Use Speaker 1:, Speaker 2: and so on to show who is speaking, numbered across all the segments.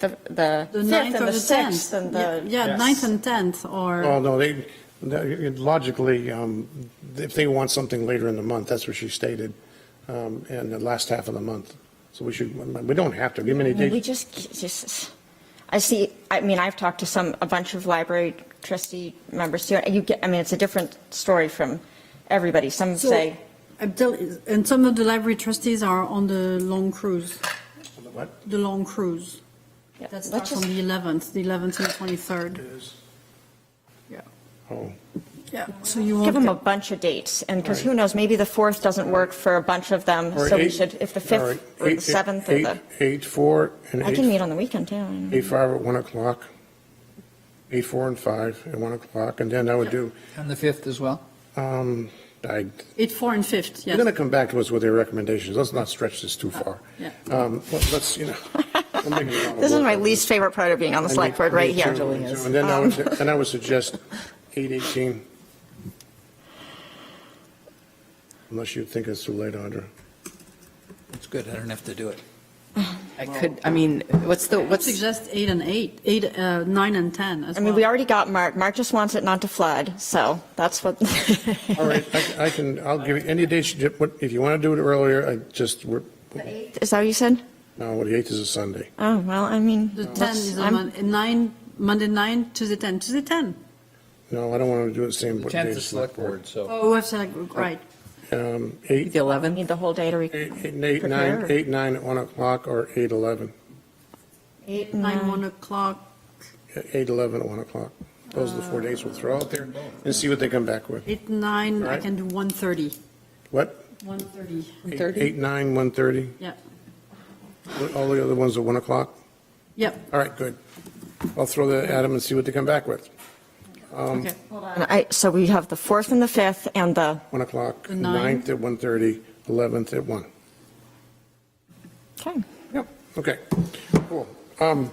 Speaker 1: the, the
Speaker 2: The
Speaker 1: fifth
Speaker 2: ninth
Speaker 1: and
Speaker 2: or
Speaker 1: the
Speaker 2: the
Speaker 1: sixth
Speaker 2: tenth?
Speaker 1: and
Speaker 2: Yeah,
Speaker 1: the,
Speaker 2: Yeah,
Speaker 3: Yes.
Speaker 2: ninth and tenth, or,
Speaker 3: Well, no, they, they- logically, um, if they want something later in the month, that's what she stated, um, in the last half of the month. So we should, we don't have to, give them any
Speaker 1: I mean, we
Speaker 3: dates.
Speaker 1: just, just, I see, I mean, I've talked to some, a bunch of library trustee members too. You get, I mean, it's a different story from everybody. Some
Speaker 2: So-
Speaker 1: say,
Speaker 2: I'm tell- and some of the library trustees are on the long cruise,
Speaker 3: What?
Speaker 2: the long cruise.
Speaker 1: yeah,
Speaker 2: That
Speaker 1: let's
Speaker 2: starts on
Speaker 1: just,
Speaker 2: the 11th, the 11th and 23rd. Yeah.
Speaker 3: Oh,
Speaker 2: Yeah, so you
Speaker 1: give them a
Speaker 2: won't,
Speaker 1: bunch of dates. And because who knows, maybe the fourth doesn't work for a bunch of them.
Speaker 3: Or
Speaker 1: So we
Speaker 3: eight-
Speaker 1: should, if the
Speaker 3: all right,
Speaker 1: fifth or the
Speaker 3: eight-
Speaker 1: seventh or
Speaker 3: eight-
Speaker 1: the,
Speaker 3: Eight, four, and
Speaker 1: I can meet
Speaker 3: eight,
Speaker 1: on the weekend too.
Speaker 3: eight, five at 1 o'clock. Eight, four, and 5 at 1 o'clock, and then I would do,
Speaker 4: On the 5th as well?
Speaker 3: um, I,
Speaker 2: eight, four, and fifth,
Speaker 3: they're going
Speaker 2: yes.
Speaker 3: to come back to us with their recommendations. Let's not stretch this too far.
Speaker 2: Yeah.
Speaker 3: Um, well, Let's, you know. we're making a lot of
Speaker 1: This is
Speaker 3: work
Speaker 1: my
Speaker 3: out of
Speaker 1: least favorite part of being on the
Speaker 3: I
Speaker 1: select
Speaker 3: need-
Speaker 1: board
Speaker 3: I
Speaker 1: right
Speaker 3: need
Speaker 1: here.
Speaker 3: two, And then I would, then I would suggest eight eighteen. Unless you think it's too late, Audra.
Speaker 4: It's good, I don't have to do it.
Speaker 5: I could, I mean, what's the, what's,
Speaker 2: Suggest eight and eight, eight, uh, nine and 10 as
Speaker 1: I
Speaker 2: well.
Speaker 1: mean, we already got Mark. Mark just wants it not to flood, so that's what.
Speaker 3: All right, I- I can, I'll give you any dates, you- what- if you want to do it earlier, I just, we're,
Speaker 1: Is that what you said?
Speaker 3: no, the eighth is a Sunday.
Speaker 1: Oh, well, I mean.
Speaker 2: The 10
Speaker 1: that's-
Speaker 2: is on
Speaker 1: I'm-
Speaker 2: Monday, nine, Monday 9, Tuesday 10, Tuesday 10.
Speaker 3: No, I don't want to do it the same.
Speaker 4: The
Speaker 3: but
Speaker 4: 10th
Speaker 3: days,
Speaker 4: is select board, so.
Speaker 2: Oh, I've said, right.
Speaker 3: Um,
Speaker 5: the
Speaker 3: eight,
Speaker 5: 11th?
Speaker 1: Need the whole day to re.
Speaker 3: eight, eight, eight,
Speaker 1: prepare.
Speaker 3: nine, eight, nine at one o'clock or eight, eleven.
Speaker 1: Eight,
Speaker 2: Nine,
Speaker 1: nine.
Speaker 2: 1 o'clock,
Speaker 3: Eight, eleven at one o'clock. Those are the four dates we'll throw out there and see what they come back with.
Speaker 2: 8, 9, I
Speaker 3: Right.
Speaker 2: can do 1:30.
Speaker 3: What?
Speaker 2: 1:30,
Speaker 3: Eight-
Speaker 5: 30?
Speaker 3: Eight, nine, one thirty?
Speaker 2: yeah.
Speaker 3: All the other ones are 1 o'clock?
Speaker 2: Yep,
Speaker 3: All right, good. I'll throw that at them and see what they come back with.
Speaker 2: okay.
Speaker 1: And I, so we have the fourth and the fifth and the,
Speaker 3: 1 o'clock,
Speaker 2: The nine?
Speaker 3: 9th at 1:30, 11th at 1.
Speaker 1: okay.
Speaker 3: Yep. Okay, cool. Um,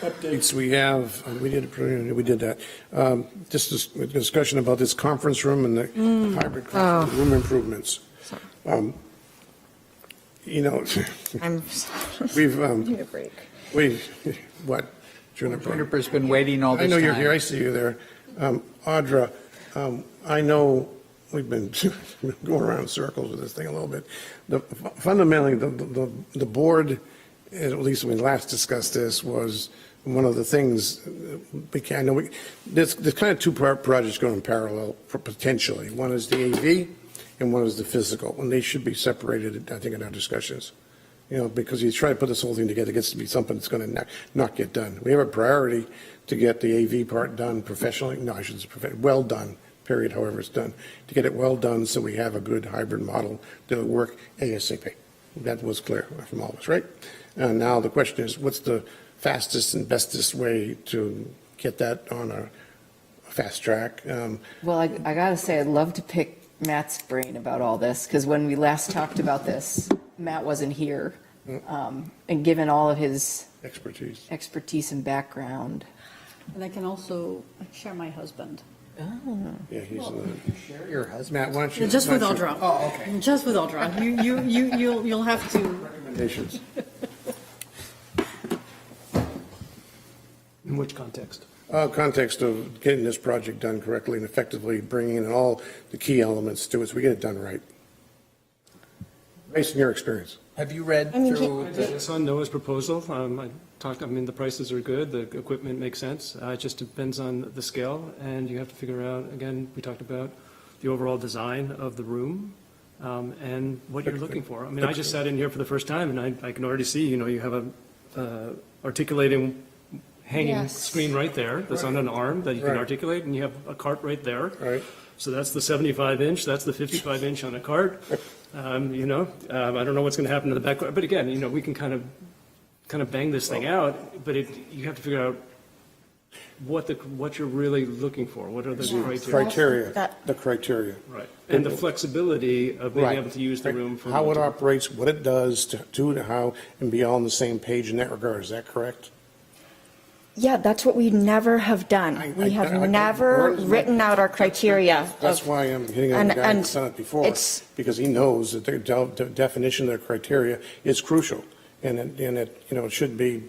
Speaker 3: Updates we have, um, we did, we did that. Um, Just this discussion about this conference room and the hybrid conference room improvements. Um, You know,
Speaker 1: I'm.
Speaker 3: we've, um,
Speaker 1: Need a break.
Speaker 3: we've, what? Juniper?
Speaker 4: Juniper's been waiting all this time.
Speaker 3: I know you're here, I see you there. Um, Audra, um, I know we've been going around in circles with this thing a little bit. The- Fundamentally, the, the, the board, at least when we last discussed this, was one of the things, uh, we can, I know we, there's, there's kind of two pro- projects going in parallel for- potentially. One is the AV and one is the physical, and they should be separated, I think, in our discussions you know, because you try to put this whole thing together, it gets to be something that's going to not get done. We have a priority to get the AV part done professionally, no, I shouldn't say profe- well done, period, however it's done, to get it well done so we have a good hybrid model that'll work ASAP. That was clear from all of us, right? And now the question is, what's the fastest and bestest way to get that on a fast track? Um,
Speaker 5: Well, I, I gotta say, I'd love to pick Matt's brain about all this, because when we last talked about this, Matt wasn't here. Um, And given all of his
Speaker 3: Expertise.
Speaker 5: expertise and background.
Speaker 2: And I can also share my husband.
Speaker 3: Yeah, he's, uh,
Speaker 4: Share your husband.
Speaker 3: Matt, why don't you?
Speaker 2: Just with
Speaker 3: why don't you-
Speaker 2: Audra. Oh, okay. Just with Audra. You, you, you, you'll, you'll have to,
Speaker 3: Recommendations.
Speaker 6: In which context?
Speaker 3: Uh, Context of getting this project done correctly and effectively, bringing in all the key elements to it, so we get it done right. Based on your experience.
Speaker 4: Have you read
Speaker 1: I mean,
Speaker 4: through,
Speaker 1: he-
Speaker 4: the-
Speaker 6: It's on Noah's proposal. Um, I talked, I mean, the prices are good, the equipment makes sense. Uh, It just depends on the scale, and you have to figure out, again, we talked about the overall design of the room um, and what you're looking for. I mean, I just sat in here for the first time, and I I can already see, you know, you have a uh, articulating hanging
Speaker 1: Yes.
Speaker 6: screen right there that's on an arm that you can
Speaker 3: Right.
Speaker 6: articulate, and you have a cart right there.
Speaker 3: Right.
Speaker 6: So that's the 75 inch, that's the 55 inch on a cart. Um, You know, um, I don't know what's going to happen to the back, but again, you know, we can kind of, kind of bang this thing out, but it, you have to figure out what the, what you're really looking for, what are the criteria,
Speaker 3: Criteria,
Speaker 1: That-
Speaker 3: the criteria.
Speaker 6: right? And the flexibility of being
Speaker 3: Right.
Speaker 6: able to use the room for.
Speaker 3: How it
Speaker 6: multiple-
Speaker 3: operates, what it does, to to and how, and be all on the same page in that regard, is that correct?
Speaker 1: Yeah, that's what we never have
Speaker 3: I-
Speaker 1: done.
Speaker 3: I-
Speaker 1: We
Speaker 3: I-
Speaker 1: have
Speaker 3: I-
Speaker 1: never
Speaker 3: we're-
Speaker 1: written out our criteria.
Speaker 3: That's
Speaker 1: of-
Speaker 3: why I'm hitting on the
Speaker 1: And-
Speaker 3: guy
Speaker 1: and
Speaker 3: that's done it before,
Speaker 1: it's-
Speaker 3: because he knows that their de- de- definition of their criteria is crucial, and it, and it, you know, it should be